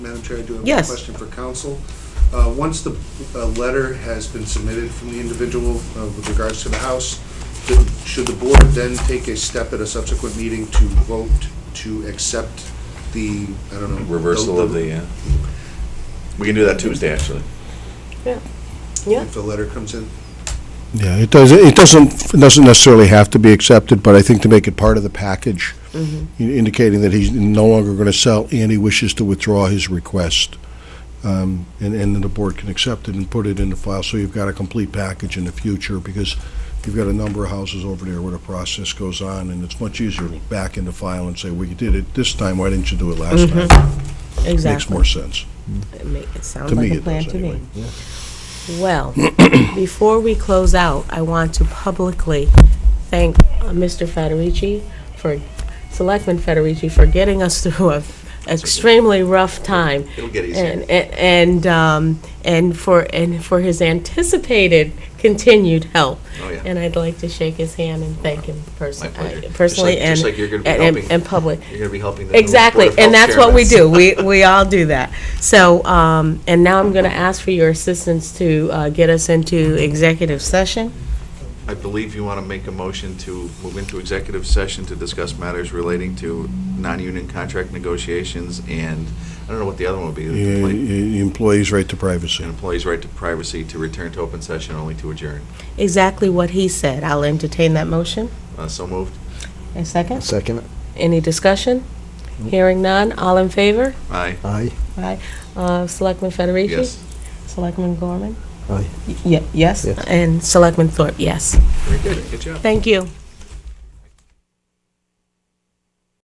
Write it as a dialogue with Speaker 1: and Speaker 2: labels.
Speaker 1: Madam Chair, I do have a
Speaker 2: Yes.
Speaker 1: question for council. Uh, Once the uh, letter has been submitted from the individual uh, with regards to the house, th- should the board then take a step at a subsequent meeting to vote to accept the, I don't know?
Speaker 3: reversal of the, uh, we can do that Tuesday, actually.
Speaker 2: Yeah.
Speaker 1: If the letter comes in?
Speaker 4: Yeah, it does, it doesn't, it doesn't necessarily have to be accepted, but I think to make it part of the package, in- indicating that he's no longer going to sell and he wishes to withdraw his request. Um, And, and then the board can accept it and put it in the file, so you've got a complete package in the future, because you've got a number of houses over there where the process goes on, and it's much easier to back in the file and say, well, you did it this time, why didn't you do it last time? Makes
Speaker 2: Exactly.
Speaker 4: more sense.
Speaker 2: It ma- It sounds
Speaker 4: To me,
Speaker 2: like a
Speaker 4: it
Speaker 2: plan
Speaker 4: does,
Speaker 2: to me.
Speaker 4: anyway.
Speaker 2: Well, before we close out, I want to publicly thank uh, Mr. Federici for, Selectman Federici for getting us through a extremely rough time.
Speaker 3: It'll get
Speaker 2: And, and- and, um, and for, and for his anticipated continued help.
Speaker 3: Oh, yeah.
Speaker 2: And I'd like to shake his hand and thank him person-
Speaker 3: My pleasure. Just
Speaker 2: personally
Speaker 3: like-
Speaker 2: and.
Speaker 3: just like you're gonna be
Speaker 2: and- and-
Speaker 3: helping.
Speaker 2: And public.
Speaker 3: You're gonna be helping the.
Speaker 2: Exactly, and that's what we do. We, we all do that. So, um, and now I'm going to ask for your assistance to uh, get us into executive session.
Speaker 3: I believe you want to make a motion to move into executive session to discuss matters relating to non-union contract negotiations and, I don't know what the other one would be.
Speaker 4: Yeah,
Speaker 3: the employee-
Speaker 4: yeah, E, Employees' right to privacy.
Speaker 3: An employee's right to privacy to return to open session only to adjourn.
Speaker 2: Exactly what he said. I'll entertain that motion.
Speaker 3: Uh, So moved.
Speaker 2: A second?
Speaker 5: Second,
Speaker 2: Any discussion? Hearing none. All in favor?
Speaker 3: Aye.
Speaker 5: aye,
Speaker 2: Aye. Uh, Selectman Federici?
Speaker 3: Yes.
Speaker 2: Selectman Gorman?
Speaker 5: aye.
Speaker 2: Y- Yes,
Speaker 5: Yes.
Speaker 2: and Selectman Thorpe, yes.
Speaker 3: Very good. Good job.
Speaker 2: Thank you.